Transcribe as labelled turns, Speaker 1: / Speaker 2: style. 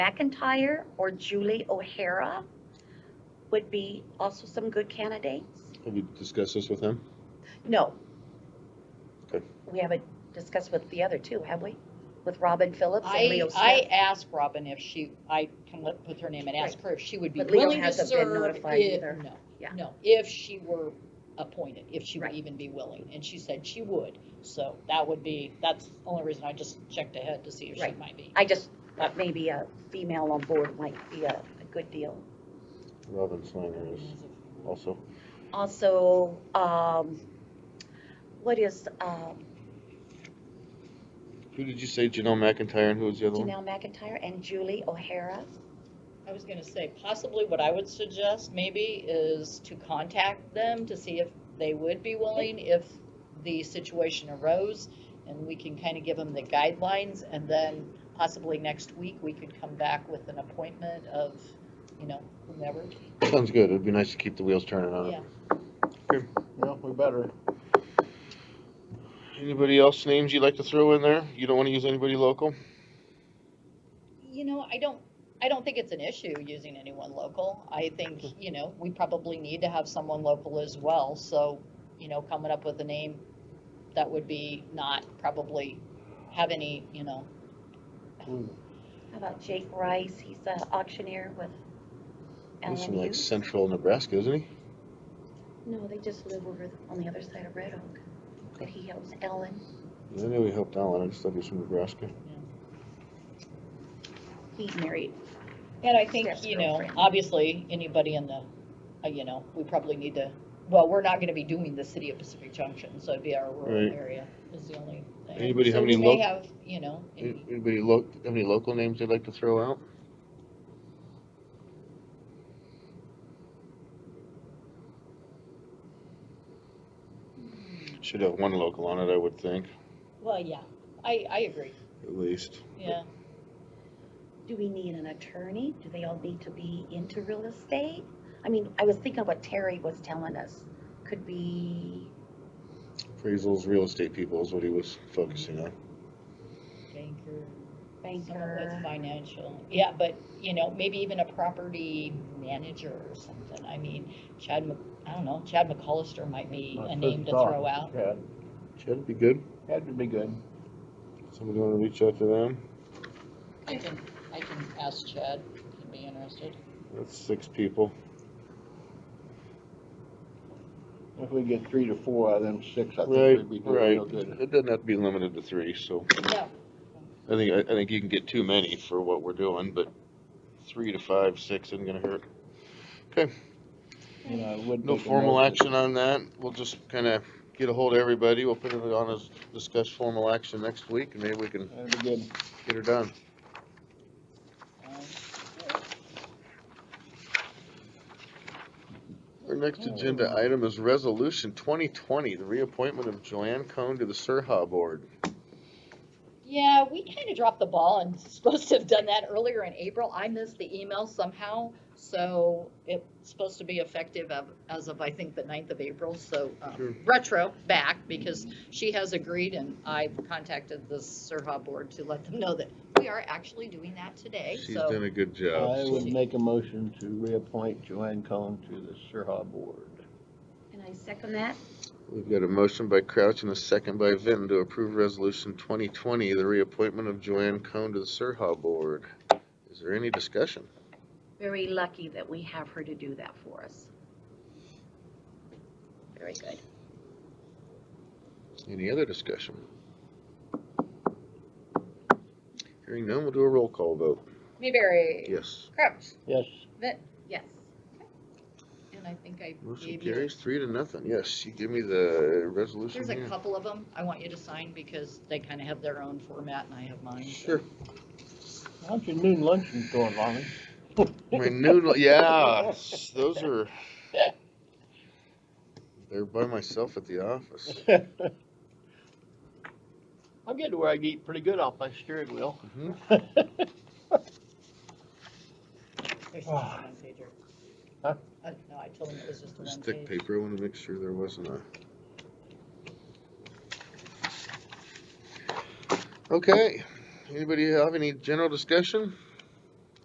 Speaker 1: McIntyre or Julie O'Hara would be also some good candidates.
Speaker 2: Have you discussed this with him?
Speaker 1: No.
Speaker 2: Okay.
Speaker 1: We haven't discussed with the other two, have we? With Robin Phillips and
Speaker 3: I,
Speaker 1: Leo
Speaker 3: I
Speaker 1: Smith?
Speaker 3: asked Robin if she, I can let, put her name and ask her if she would be
Speaker 1: But Leo
Speaker 3: willing to
Speaker 1: hasn't been
Speaker 3: serve
Speaker 1: notified
Speaker 3: if,
Speaker 1: either. Yeah.
Speaker 3: no, no, if she were appointed, if she would
Speaker 1: Right.
Speaker 3: even be willing, and she said she would. So that would be, that's the only reason I just checked ahead to see if she
Speaker 1: Right.
Speaker 3: might be.
Speaker 1: I just thought maybe a female on board might be a, a good deal.
Speaker 2: Robin Slanger is also.
Speaker 1: Also, um, what is, um,
Speaker 2: Who did you say, Janelle McIntyre, and who was the other one?
Speaker 1: Janelle McIntyre and Julie O'Hara?
Speaker 3: I was gonna say, possibly what I would suggest maybe is to contact them to see if they would be willing if the situation arose. And we can kind of give them the guidelines and then possibly next week, we could come back with an appointment of, you know, whomever.
Speaker 2: Sounds good, it'd be nice to keep the wheels turning on
Speaker 3: Yeah.
Speaker 2: it.
Speaker 4: Well, we better.
Speaker 2: Anybody else names you'd like to throw in there? You don't wanna use anybody local?
Speaker 3: You know, I don't, I don't think it's an issue using anyone local. I think,
Speaker 2: Mm-hmm.
Speaker 3: you know, we probably need to have someone local as well, so, you know, coming up with a name that would be not probably have any, you know,
Speaker 1: How about Jake Rice? He's an auctioneer with
Speaker 2: He's from like
Speaker 1: LMU.
Speaker 2: central Nebraska, isn't he?
Speaker 1: No, they just live over th- on the other side of Red Oak, but he helps Ellen.
Speaker 2: I know he helped Alan, I just thought he was from Nebraska.
Speaker 1: He's married.
Speaker 3: And I think,
Speaker 1: Yes,
Speaker 3: you know,
Speaker 1: girlfriend.
Speaker 3: obviously, anybody in the, uh, you know, we probably need to, well, we're not gonna be doing the city of Pacific Junction, so it'd be our rural
Speaker 2: Right.
Speaker 3: area is the only thing.
Speaker 2: Anybody have
Speaker 3: So we
Speaker 2: any
Speaker 3: may
Speaker 2: loc-
Speaker 3: have, you know,
Speaker 2: An-
Speaker 3: any-
Speaker 2: Anybody lo, have any local names they'd like to throw out? Should have one local on it, I would think,
Speaker 3: well, yeah, I, I agree,
Speaker 2: at least.
Speaker 3: yeah.
Speaker 1: Do we need an attorney? Do they all need to be into real estate? I mean, I was thinking what Terry was telling us, could be,
Speaker 2: Appraisals, real estate people is what he was focusing on.
Speaker 3: Banker. Someone
Speaker 1: Banker.
Speaker 3: with financial, yeah, but, you know, maybe even a property manager or something, I mean, Chad, Mc- I don't know, Chad McCollister might be
Speaker 4: My
Speaker 3: a name
Speaker 4: first
Speaker 3: to
Speaker 4: thought,
Speaker 3: throw out.
Speaker 4: Chad,
Speaker 2: Should be good.
Speaker 4: had to be good.
Speaker 2: Somebody wanna reach out to them?
Speaker 3: I can, I can ask Chad, if he'd be interested.
Speaker 2: That's six people.
Speaker 4: If we get three to four of them six, I think
Speaker 2: Right,
Speaker 4: we'd be doing
Speaker 2: right.
Speaker 4: real good.
Speaker 2: It doesn't have to be limited to three, so
Speaker 3: Yeah,
Speaker 2: I think, I, I think you can get too many for what we're doing, but three to five, six isn't gonna hurt.
Speaker 4: And I would
Speaker 2: No
Speaker 4: make a
Speaker 2: formal
Speaker 4: note that-
Speaker 2: action on that. We'll just kind of get a hold of everybody. We'll put it on as discuss formal action next week and maybe we can
Speaker 4: That'd be good.
Speaker 2: get her done.
Speaker 3: um,
Speaker 2: Our next
Speaker 4: Oh.
Speaker 2: agenda item is resolution twenty twenty, the reappointment of Joanne Cohn to the Surha Board.
Speaker 3: Yeah, we kind of dropped the ball and supposed to have done that earlier in April. I missed the email somehow. So it's supposed to be effective of, as of, I think, the 9th of April, so um,
Speaker 2: Sure.
Speaker 3: retro back because she has agreed and I've contacted the Surha board to let them know that we are actually doing that today.
Speaker 2: She's
Speaker 3: So
Speaker 2: done a good
Speaker 4: I
Speaker 2: job.
Speaker 4: would make a motion to reappoint Joanne Cohen to the Surha Board.
Speaker 1: And I second that.
Speaker 2: We've got a motion by Crouch and a second by Vinton to approve resolution twenty twenty, the reappointment of Joanne Cohn to the Surha Board. Is there any discussion?
Speaker 1: Very lucky that we have her to do that for us. Very good.
Speaker 2: Any other discussion? Hearing none, we'll do a roll call vote.
Speaker 3: Mayberry,
Speaker 2: Yes.
Speaker 3: Crouch,
Speaker 4: Yes,
Speaker 1: Yes.
Speaker 3: and I think I
Speaker 2: Motion
Speaker 3: gave you.
Speaker 2: carries three to nothing. Yes, you give me the resolution
Speaker 3: There's a
Speaker 2: here.
Speaker 3: couple of them I want you to sign because they kind of have their own format and I have mine. so.
Speaker 2: Sure.
Speaker 4: how's your noon luncheon going, Lonnie?
Speaker 2: My noodle, yeah, s- those are. They're by myself at the office.
Speaker 4: I'm getting to where I can eat pretty good off my steering wheel.
Speaker 2: Mhm.
Speaker 3: There's just
Speaker 4: Ah.
Speaker 3: one pager.
Speaker 4: Huh?
Speaker 3: I- No, I told him it was just a
Speaker 2: There's
Speaker 3: one
Speaker 2: thick
Speaker 3: page.
Speaker 2: paper, I wanna make sure there wasn't a. Okay, anybody have any general discussion?